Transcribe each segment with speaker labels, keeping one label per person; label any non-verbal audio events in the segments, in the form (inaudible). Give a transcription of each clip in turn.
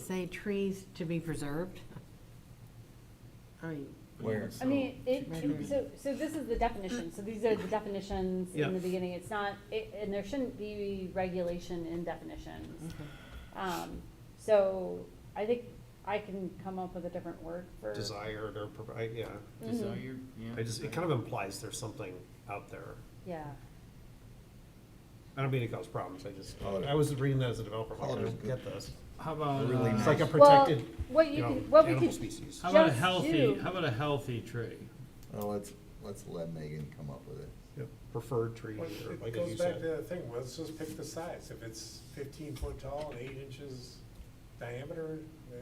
Speaker 1: say trees to be preserved? I mean,
Speaker 2: Where?
Speaker 3: I mean, it,
Speaker 1: Right here.
Speaker 3: so, so this is the definition, so these are the definitions
Speaker 4: Yeah.
Speaker 3: in the beginning, it's not, it, and there shouldn't be regulation in
Speaker 4: Mm-hmm.
Speaker 3: definitions.
Speaker 1: okay.
Speaker 3: Um, so, I think I can come up with a different word for.
Speaker 4: desired or provide, yeah.
Speaker 3: Mhm.
Speaker 5: mm-hmm.
Speaker 2: Desire, yeah.
Speaker 4: I just, it kind of implies there's something out there.
Speaker 3: Yeah,
Speaker 4: I don't mean to cause problems, I just,
Speaker 2: Oh,
Speaker 4: I was reading that as a developer, I'm like, I
Speaker 2: Oh,
Speaker 4: don't
Speaker 2: good.
Speaker 4: get this.
Speaker 6: How about,
Speaker 2: Really
Speaker 6: uh,
Speaker 4: It's like a
Speaker 3: Well,
Speaker 4: protected,
Speaker 3: what you
Speaker 4: you know,
Speaker 3: could- what we
Speaker 4: animal
Speaker 3: could-
Speaker 4: species.
Speaker 6: how about a
Speaker 3: Just
Speaker 6: healthy,
Speaker 3: you.
Speaker 6: how about a healthy tree?
Speaker 2: Oh, let's, let's let Megan come up with it.
Speaker 4: Yeah, Preferred tree,
Speaker 7: Well,
Speaker 4: or
Speaker 7: It
Speaker 4: like as
Speaker 7: goes
Speaker 4: you
Speaker 7: back to
Speaker 4: said.
Speaker 7: the thing, let's just pick the size, if it's fifteen foot tall and eight inches diameter, uh,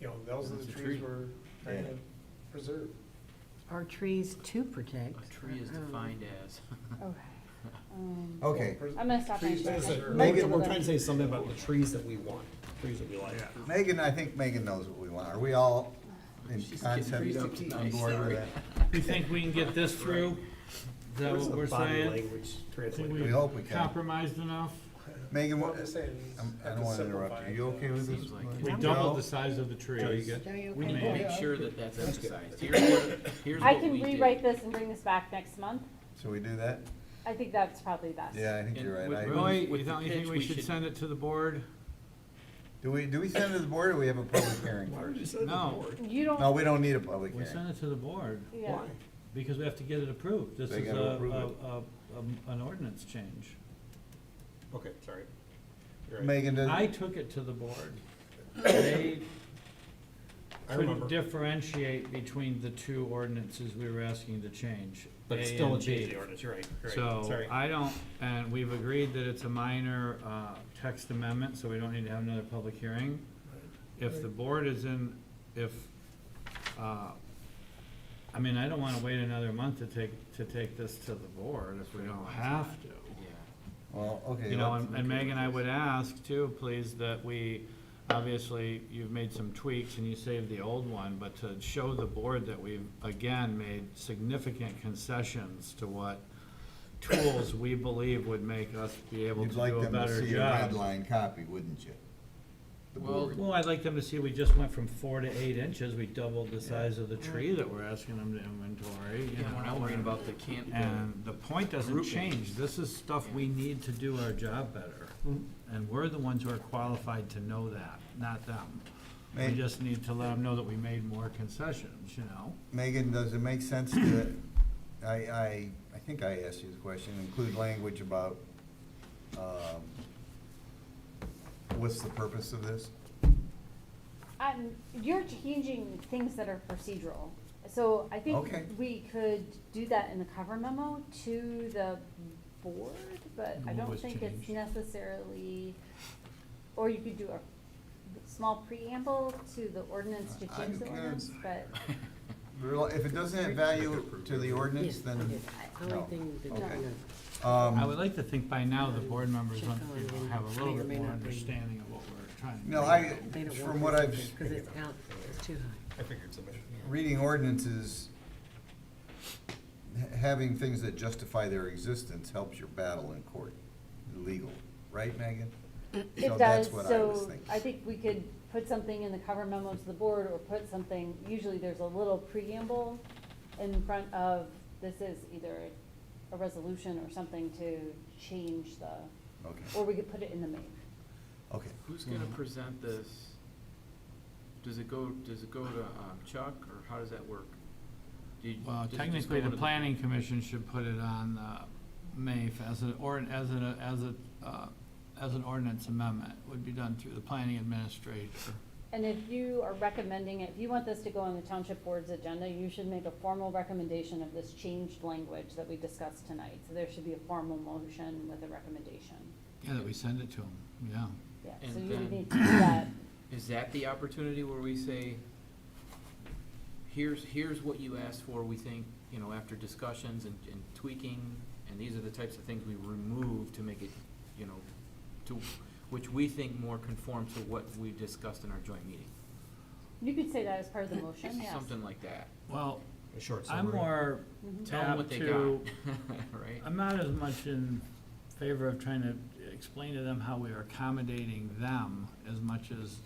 Speaker 7: you know, those are
Speaker 6: That's
Speaker 7: the
Speaker 6: a
Speaker 7: trees
Speaker 6: tree.
Speaker 7: we're trying
Speaker 2: Yeah.
Speaker 7: to preserve.
Speaker 1: Are trees to protect?
Speaker 5: A tree is
Speaker 1: I don't know.
Speaker 5: defined as. (laughs)
Speaker 3: okay. Um,
Speaker 2: Okay,
Speaker 7: Pres-
Speaker 3: I'm gonna stop my.
Speaker 7: Trees
Speaker 3: track.
Speaker 4: Like I said,
Speaker 7: Sure.
Speaker 4: Megan,
Speaker 3: Hold
Speaker 4: we're
Speaker 3: on.
Speaker 4: trying to say something about the trees that we want, trees that we like.
Speaker 2: Megan, I think Megan knows what we want. Are we all in
Speaker 5: She's getting
Speaker 2: concept
Speaker 5: pretty
Speaker 2: on
Speaker 5: nice,
Speaker 2: board
Speaker 5: sorry.
Speaker 2: with that?
Speaker 6: You think we can get this through? Is that
Speaker 4: Where's
Speaker 6: what
Speaker 4: the
Speaker 6: we're
Speaker 4: body
Speaker 6: saying?
Speaker 4: Language
Speaker 6: Think
Speaker 2: We
Speaker 4: translated.
Speaker 2: hope we can.
Speaker 6: Compromised enough?
Speaker 2: Megan,
Speaker 7: Well,
Speaker 2: what,
Speaker 7: I'm just saying,
Speaker 2: I'm- I don't
Speaker 7: have to
Speaker 2: want to interrupt
Speaker 7: simplify
Speaker 2: you.
Speaker 7: it,
Speaker 2: You
Speaker 7: uh,
Speaker 2: okay with this?
Speaker 5: Seems like it.
Speaker 6: We
Speaker 5: No.
Speaker 6: doubled the size of the tree.
Speaker 2: Oh,
Speaker 4: Joe, you good?
Speaker 1: Are you okay?
Speaker 6: We
Speaker 5: We need to
Speaker 6: Yeah.
Speaker 5: make sure that that's
Speaker 4: That's good.
Speaker 5: emphasized. Here's what, here's
Speaker 3: I
Speaker 5: what
Speaker 3: can
Speaker 5: we
Speaker 3: rewrite
Speaker 5: did.
Speaker 3: this and bring this back next month,
Speaker 2: Should we do that?
Speaker 3: I think that's probably best.
Speaker 2: Yeah, I think you're
Speaker 5: And
Speaker 2: right.
Speaker 5: with
Speaker 2: I-
Speaker 5: Roy-
Speaker 6: Really,
Speaker 5: With
Speaker 6: you
Speaker 5: the
Speaker 6: don't you
Speaker 5: pitch,
Speaker 6: think we
Speaker 5: we
Speaker 6: should
Speaker 5: should-
Speaker 6: send it to the board?
Speaker 2: Do we, do we send it to the board or we have a public hearing
Speaker 4: Why would you
Speaker 2: first?
Speaker 4: say the
Speaker 6: No.
Speaker 4: board?
Speaker 3: You
Speaker 2: No,
Speaker 3: don't,
Speaker 2: we don't need a public
Speaker 6: We
Speaker 2: hearing.
Speaker 6: send it to the board,
Speaker 3: yeah,
Speaker 4: Why?
Speaker 6: because we have to get it approved. This
Speaker 2: They
Speaker 6: is a,
Speaker 2: gotta approve it.
Speaker 6: a, a- a- an ordinance change.
Speaker 4: Okay, sorry. You're right.
Speaker 2: Megan, does-
Speaker 6: I took it to the board. They
Speaker 4: I
Speaker 6: couldn't
Speaker 4: remember.
Speaker 6: differentiate between the two ordinances we were asking to change.
Speaker 4: But it's
Speaker 6: A
Speaker 4: still a
Speaker 6: and
Speaker 4: change of
Speaker 6: B.
Speaker 4: the ordinance, you're right, you're right,
Speaker 6: So
Speaker 4: sorry.
Speaker 6: I don't, and we've agreed that it's a minor uh, text amendment, so we don't need to have another public hearing. If the board is in, if, uh, I mean, I don't want to wait another month to take, to take this to the board if we don't have to.
Speaker 5: Yeah.
Speaker 2: well, okay.
Speaker 6: You know,
Speaker 2: let's-
Speaker 6: and and Megan, I would ask too, please, that we, obviously, you've made some tweaks and you saved the old one, but to show the board that we've, again, made significant concessions to what tools we believe would make us be able to
Speaker 2: You'd like
Speaker 6: do a
Speaker 2: them to
Speaker 6: better
Speaker 2: see a red
Speaker 6: job.
Speaker 2: line copy, wouldn't you? The
Speaker 5: Well,
Speaker 2: board.
Speaker 6: Well, I'd like them to see, we just went from four to eight inches, we doubled the size of the tree that we're asking them to inventory, you
Speaker 5: Yeah, we're
Speaker 6: know,
Speaker 5: not worrying
Speaker 6: and-
Speaker 5: about the can't, the
Speaker 6: And the point doesn't
Speaker 5: Grouping.
Speaker 6: change, this is stuff we need to do our job better. And we're the ones who are qualified to know that, not them. We
Speaker 2: May-
Speaker 6: just need to let them know that we made more concessions, you know?
Speaker 2: Megan, does it make sense to, I, I, I think I asked you the question, include language about, um, what's the purpose of this?
Speaker 3: um, you're changing things that are procedural. So I think
Speaker 2: Okay.
Speaker 3: we could do that in the cover memo to the board, but I
Speaker 6: What
Speaker 3: don't
Speaker 6: was
Speaker 3: think it's
Speaker 6: changed?
Speaker 3: necessarily, or you could do a small preamble to the ordinance to
Speaker 2: I
Speaker 3: change the
Speaker 2: can-
Speaker 3: ordinance, but
Speaker 2: Rel- If it doesn't add value to the ordinance,
Speaker 1: Yes,
Speaker 2: then,
Speaker 1: yes. The
Speaker 2: no.
Speaker 1: Only thing that,
Speaker 2: Okay.
Speaker 1: you know,
Speaker 6: I would
Speaker 2: um,
Speaker 6: like to think by now the board members
Speaker 1: Check
Speaker 6: want, you
Speaker 1: on
Speaker 6: know, have a little
Speaker 1: may or may
Speaker 6: bit more
Speaker 1: not be.
Speaker 6: understanding of what we're trying to do.
Speaker 2: no, I,
Speaker 1: they don't
Speaker 2: from
Speaker 1: want
Speaker 2: what
Speaker 1: this
Speaker 2: I've,
Speaker 1: to- Cause it's out, it's too high.
Speaker 4: I figured so much.
Speaker 2: reading ordinances, ha- having things that justify their existence helps your battle in court, legal, right, Megan?
Speaker 3: it
Speaker 2: So that's
Speaker 3: does,
Speaker 2: what I was
Speaker 3: so
Speaker 2: thinking.
Speaker 3: I think we could put something in the cover memo to the board or put something, usually there's a little preamble in front of, this is either a resolution or something to change the,
Speaker 2: Okay,
Speaker 3: or we could put it in the main.
Speaker 2: okay.
Speaker 5: who's gonna present this? Does it go, does it go to um, Chuck, or how does that work? Do you-
Speaker 6: Well,
Speaker 5: does it just go
Speaker 6: technically,
Speaker 5: to
Speaker 6: the planning commission should put it on the MAF as an, or, as an, as a, uh, as an ordinance amendment, would be done through the planning administrator.
Speaker 3: And if you are recommending it, if you want this to go on the township board's agenda, you should make a formal recommendation of this changed language that we discussed tonight. So there should be a formal motion with a recommendation.
Speaker 6: Yeah, that we send it to them, yeah.
Speaker 3: Yeah, so
Speaker 5: And
Speaker 3: you
Speaker 5: then-
Speaker 3: would need to do that.
Speaker 5: Is that the opportunity where we say, here's, here's what you asked for, we think, you know, after discussions and, and tweaking, and these are the types of things we remove to make it, you know, to, which we think more conform to what we discussed in our joint meeting?
Speaker 3: You could say that as part of
Speaker 5: (coughs)
Speaker 3: the motion, yes.
Speaker 5: Something like that.
Speaker 6: Well,
Speaker 4: A short
Speaker 6: I'm
Speaker 4: summary.
Speaker 6: more
Speaker 5: Mhm. Tell them what
Speaker 6: apt
Speaker 5: they
Speaker 6: to,
Speaker 5: got, (laughs) right?
Speaker 6: I'm not as much in favor of trying to explain to them how we are accommodating them as much as